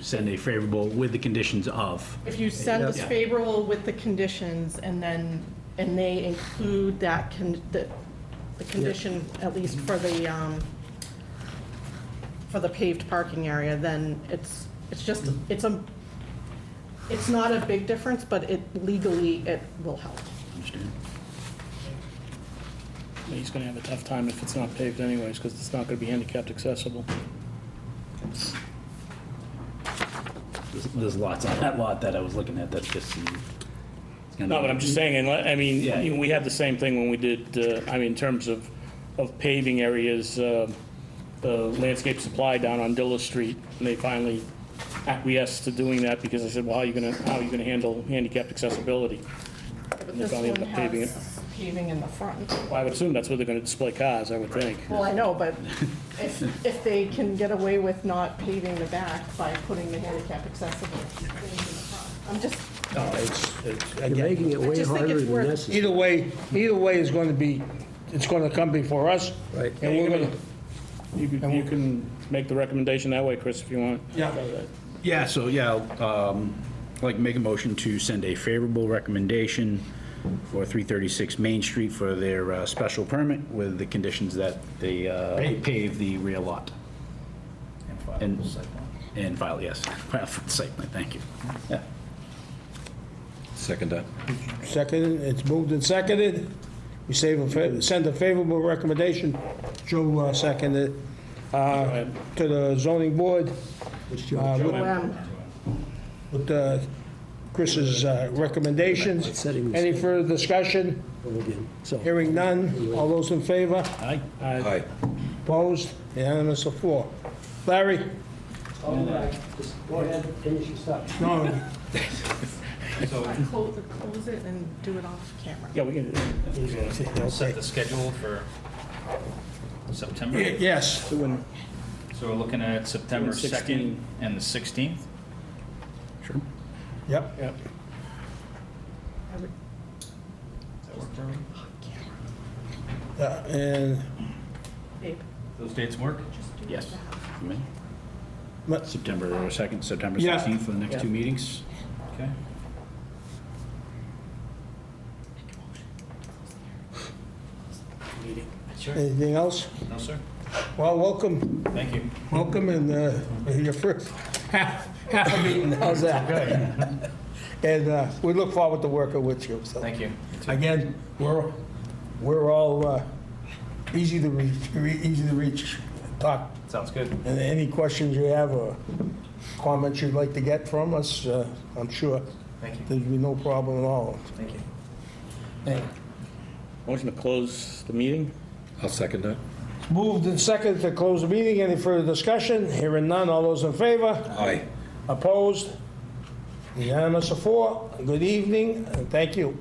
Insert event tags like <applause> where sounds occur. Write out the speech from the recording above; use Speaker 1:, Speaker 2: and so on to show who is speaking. Speaker 1: send a favorable with the conditions of.
Speaker 2: If you send us
Speaker 1: Yeah.
Speaker 2: favorable with the conditions and then, and they include that, con- the, the condition, at least for the, um, for the paved parking area, then it's, it's just, it's a, it's not a big difference, but it legally, it will help.
Speaker 1: Understand?
Speaker 3: He's gonna have a tough time if it's not paved anyways, because it's not gonna be handicapped accessible.
Speaker 1: There's- There's lots on that lot that I was looking at, that's just. mm, it's gonna
Speaker 3: No, but I'm just saying, and, I mean,
Speaker 1: Yeah.
Speaker 3: you- we had the same thing when we did, uh, I mean, in terms of, of paving areas, uh, the landscape supply down on Dilla Street, and they finally acquiesced to doing that, because I said, well, how are you gonna, how are you gonna handle handicapped accessibility?
Speaker 2: But
Speaker 3: They'll
Speaker 2: this
Speaker 3: probably
Speaker 2: one
Speaker 3: end up paving it.
Speaker 2: has paving in the front.
Speaker 3: Well, I would assume that's where they're gonna display cars, I would think.
Speaker 2: Well, I know, but if, if they can get away with not paving the back by putting the handicap accessible things in the front, I'm just,
Speaker 4: No, it's, it's,
Speaker 5: You're
Speaker 4: again,
Speaker 5: making it
Speaker 2: I
Speaker 5: way
Speaker 2: just think
Speaker 5: harder
Speaker 2: it's
Speaker 5: than
Speaker 2: worth-
Speaker 5: necessary.
Speaker 4: either way, either way is gonna be, it's gonna come before us.
Speaker 5: Right.
Speaker 4: And we're gonna,
Speaker 3: You can, you can make the recommendation that way, Chris, if you want.
Speaker 4: Yeah.
Speaker 1: Yeah, so yeah, I'll, um, like make a motion to send a favorable recommendation for 336 Main Street for their uh, special permit with the conditions that they uh, pave the rear lot. And file And file, yes, <laughs> file for the site plan, thank you. Yeah.
Speaker 6: Second that.
Speaker 4: second, it's moved and seconded. We save a, fa- send a favorable recommendation, Joe uh, seconded, uh, to the zoning board. uh, with-
Speaker 2: um,
Speaker 4: With uh, Chris's uh, recommendations.
Speaker 5: Setting the-
Speaker 4: Any further discussion?
Speaker 5: Again, So,
Speaker 4: Hearing none. All those in favor?
Speaker 1: Aye.
Speaker 6: Aye.
Speaker 4: Opposed? Unanimous of four. Larry?
Speaker 5: all right, just go ahead, finish your stuff.
Speaker 4: No.
Speaker 2: close, close it and do it off camera.
Speaker 3: Yeah, we can,
Speaker 7: We'll set the schedule for September.
Speaker 4: Yes,
Speaker 7: So we're looking at September
Speaker 3: Doing
Speaker 7: 2nd
Speaker 3: 16.
Speaker 7: and the 16th.
Speaker 4: yep.
Speaker 3: yeah.
Speaker 2: I would-
Speaker 7: Does that work for everyone?
Speaker 4: Uh, And
Speaker 2: Babe,
Speaker 7: Those dates work?
Speaker 2: just do it
Speaker 1: Yes.
Speaker 2: back.
Speaker 1: You may.
Speaker 4: What?
Speaker 1: September 2nd, September
Speaker 4: Yeah.
Speaker 1: 16th for the next two meetings.
Speaker 7: Okay. Sure.
Speaker 4: anything else?
Speaker 7: No, sir.
Speaker 4: Well, welcome,
Speaker 7: Thank you.
Speaker 4: welcome, and uh, your first <laughs> half half a meeting, how's that? <laughs> And uh, we look forward to working with you, so.
Speaker 7: Thank you.
Speaker 4: Again, we're, we're all uh, easy to reach, re- easy to reach, talk,
Speaker 7: Sounds good.
Speaker 4: and any questions you have or comments you'd like to get from us, uh, I'm sure
Speaker 7: Thank you.
Speaker 4: there'd be no problem at all.
Speaker 7: Thank you.
Speaker 4: Thank you.
Speaker 3: Motion to close the meeting?
Speaker 6: I'll second that.
Speaker 4: Moved and seconded to close the meeting. Any further discussion? Hearing none. All those in favor?
Speaker 6: Aye.
Speaker 4: Opposed? Unanimous of four. Good evening, and thank you.